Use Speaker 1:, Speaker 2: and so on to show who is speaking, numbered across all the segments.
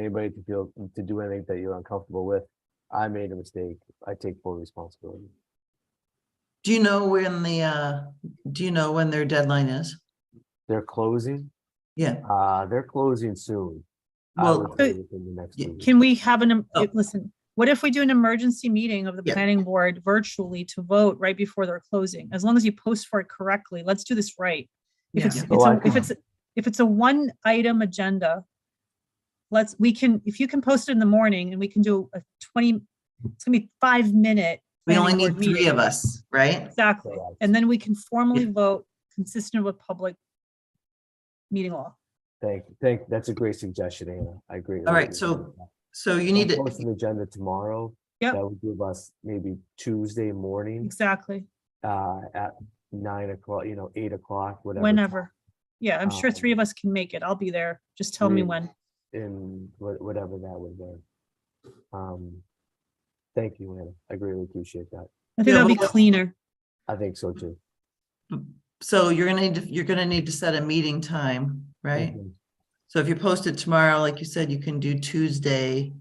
Speaker 1: anybody to feel, to do anything that you're uncomfortable with. I made a mistake. I take full responsibility.
Speaker 2: Do you know when the, uh, do you know when their deadline is?
Speaker 1: They're closing,
Speaker 2: Yeah,
Speaker 1: uh, they're closing soon. I
Speaker 2: Well,
Speaker 1: would say within the next
Speaker 2: yeah,
Speaker 1: week.
Speaker 3: Can we have an, em-
Speaker 2: Oh.
Speaker 3: listen, what if we do an emergency meeting of the
Speaker 2: Yeah.
Speaker 3: planning board virtually to vote right before they're closing? As long as you post for it correctly, let's do this right. If
Speaker 2: Yeah.
Speaker 3: it's,
Speaker 1: So
Speaker 3: it's
Speaker 1: I
Speaker 3: a- if
Speaker 1: can-
Speaker 3: it's, if it's a one item agenda, let's, we can, if you can post it in the morning and we can do a twenty, it's gonna be five minute.
Speaker 2: we only
Speaker 3: planning
Speaker 2: need
Speaker 3: board
Speaker 2: three
Speaker 3: meeting.
Speaker 2: of us, right?
Speaker 3: Exactly.
Speaker 1: Correct.
Speaker 3: And then we can formally vote consistent with public meeting law.
Speaker 1: Thank, thank, that's a great suggestion, Anna. I agree.
Speaker 2: All right, so So you need
Speaker 1: Post
Speaker 2: to,
Speaker 1: an agenda tomorrow.
Speaker 3: Yep.
Speaker 1: That would give us maybe Tuesday morning,
Speaker 3: Exactly.
Speaker 1: uh, at nine o'clock, you know, eight o'clock, whatever. time.
Speaker 3: Whenever. Yeah, I'm sure three
Speaker 1: Um, mm.
Speaker 3: of us can make it. I'll be there. Just tell me
Speaker 1: three.
Speaker 3: when.
Speaker 1: in wha- whatever that would be. Um, thank you, Anna. I greatly appreciate that.
Speaker 3: I
Speaker 2: Yeah,
Speaker 3: think that'd be
Speaker 2: but-
Speaker 3: cleaner.
Speaker 1: I think so too.
Speaker 2: so you're gonna need, to you're gonna need to set a meeting time, right?
Speaker 1: Mhm.
Speaker 2: So if you post it tomorrow, like you said, you can do Tuesday.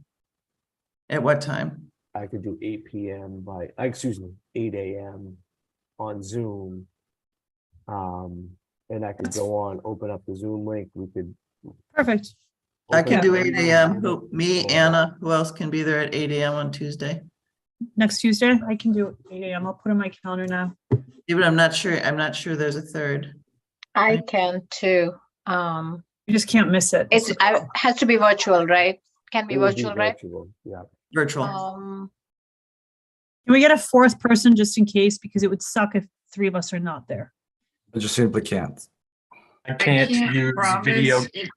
Speaker 2: At what time?
Speaker 1: I could do eight PM by, uh, excuse me, eight AM on Zoom. Um, and I could
Speaker 3: That's-
Speaker 1: go on, open up the Zoom link, we could.
Speaker 3: Perfect.
Speaker 2: I
Speaker 1: open
Speaker 2: can
Speaker 1: up
Speaker 2: do
Speaker 1: the
Speaker 2: eight
Speaker 1: Zoom
Speaker 2: AM.
Speaker 1: link
Speaker 2: Who- Me,
Speaker 1: or-
Speaker 2: Anna, who else can be there at eight AM on Tuesday?
Speaker 3: Next Tuesday, I can do eight AM. I'll put in my calendar now.
Speaker 2: Even I'm not sure, I'm not sure there's a third.
Speaker 4: I can too. Um,
Speaker 3: You just can't miss it.
Speaker 4: it's, I, has to be virtual, right? Can be
Speaker 1: It would be
Speaker 4: virtual, right?
Speaker 1: virtual, Yeah,
Speaker 2: Virtual.
Speaker 3: Oh,
Speaker 4: Um,
Speaker 3: Can we get a fourth person just in case? Because it would suck if three of us are not there.
Speaker 5: I just simply can't.
Speaker 6: I can't
Speaker 7: can't
Speaker 6: use video.
Speaker 7: promise if-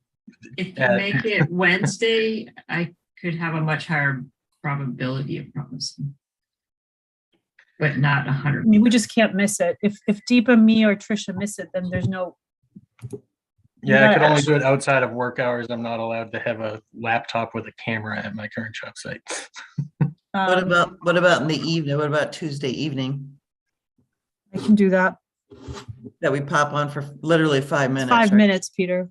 Speaker 7: If you
Speaker 6: uh,
Speaker 7: make it Wednesday, I could have a much higher probability of promising. But not a
Speaker 3: I
Speaker 7: hundred.
Speaker 3: mean, we just can't miss it. If, if Deepa, me or Trisha miss it, then there's no,
Speaker 6: Yeah, I
Speaker 3: Yeah,
Speaker 6: could only do it outside of work hours. I'm not allowed to have a laptop with a camera at my current job site.
Speaker 2: What
Speaker 3: um,
Speaker 2: about, what about in the evening? What about Tuesday evening?
Speaker 3: I can do that.
Speaker 2: That we pop on for literally five minutes.
Speaker 3: Five
Speaker 2: right?
Speaker 3: minutes, Peter.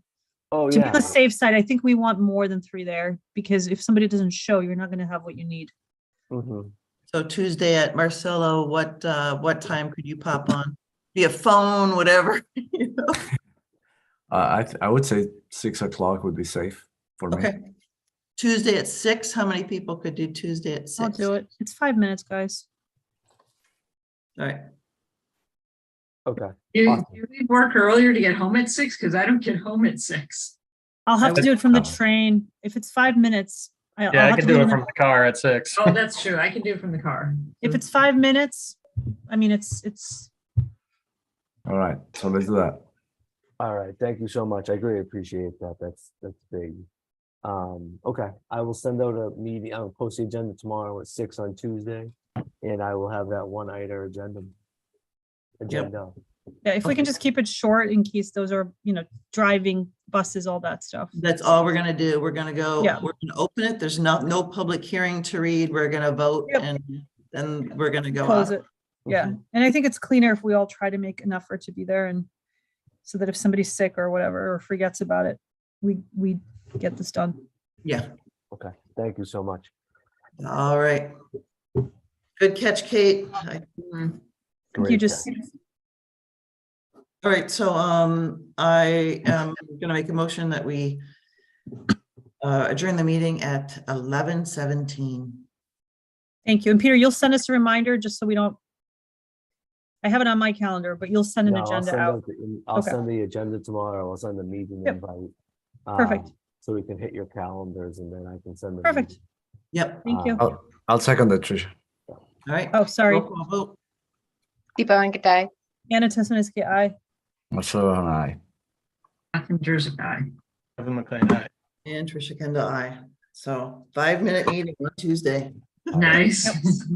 Speaker 1: oh,
Speaker 3: To be on
Speaker 1: yeah,
Speaker 3: the safe side, I think we want more than three there because if somebody doesn't show, you're not gonna have what you need.
Speaker 1: Mhm.
Speaker 2: So Tuesday at Marcelo, what, uh, what time could you pop on? Via phone, whatever. you know?
Speaker 5: Uh, I th- I would say six o'clock would be safe for me.
Speaker 2: Okay. Tuesday at six, how many people could do Tuesday at 6
Speaker 3: I'll do it. It's five minutes, guys.
Speaker 2: All right,
Speaker 1: okay.
Speaker 7: Do
Speaker 1: Awesome.
Speaker 7: do we work earlier to get home at six? Because I don't get home at six.
Speaker 3: I'll have to
Speaker 5: would-
Speaker 3: do it from the
Speaker 5: Oh.
Speaker 3: train. If it's five minutes, I- I'll
Speaker 6: Yeah, I
Speaker 3: have
Speaker 6: could
Speaker 3: to
Speaker 6: do
Speaker 3: leave
Speaker 6: it
Speaker 3: in the-
Speaker 6: from the car at six.
Speaker 7: Oh, that's true. I can do it from the car.
Speaker 3: If it's five minutes, I mean, it's, it's,
Speaker 5: All right. So let's do that.
Speaker 1: All right, thank you so much. I greatly appreciate that. That's, that's big. Um, okay, I will send out a meeting, I'll post the agenda tomorrow at six on Tuesday. And I will have that one item agenda. Agenda.
Speaker 3: yeah, if we can just keep it short in case those are, you know, driving buses, all that stuff.
Speaker 2: that's all we're gonna do. We're gonna go,
Speaker 3: Yeah.
Speaker 2: we're gonna open it. There's not, no public hearing to read. We're gonna vote
Speaker 3: Yep.
Speaker 2: and then we're gonna go
Speaker 3: Close
Speaker 2: out.
Speaker 3: it. Yeah. And I think it's cleaner if we all try to make an effort to be there and so that if somebody's sick or whatever, or forgets about it, we, we get this done.
Speaker 2: Yeah,
Speaker 1: Okay, thank you so much.
Speaker 2: all right. Good catch, Kate. I-
Speaker 3: You
Speaker 1: Great,
Speaker 3: just,
Speaker 2: All right, so um, I am gonna make a motion that we uh, adjourn the meeting at eleven seventeen.
Speaker 3: thank you. And Peter, you'll send us a reminder just so we don't. I have it on my calendar, but you'll send an
Speaker 1: No, I'll
Speaker 3: agenda
Speaker 1: send
Speaker 3: out.
Speaker 1: the in- I'll
Speaker 3: Okay.
Speaker 1: send the agenda tomorrow. I'll send the meeting
Speaker 3: Yep.
Speaker 1: invite.
Speaker 3: Perfect.
Speaker 1: um, So we can hit your calendars and then I can send them.
Speaker 3: Perfect.
Speaker 2: Yep,
Speaker 3: Thank you.
Speaker 1: Uh,
Speaker 5: I'll, I'll second that, Tricia.
Speaker 2: all right.
Speaker 3: Oh, sorry.
Speaker 2: Roll call vote.
Speaker 4: Deepa Venkatai.
Speaker 3: Anna Tesmeniski, aye.
Speaker 5: Marcelo and I.
Speaker 7: Catherine Jersey, aye.
Speaker 6: Kevin McLean, aye.
Speaker 2: And Trisha Kendall, I. So five minute meeting on Tuesday.
Speaker 7: Nice.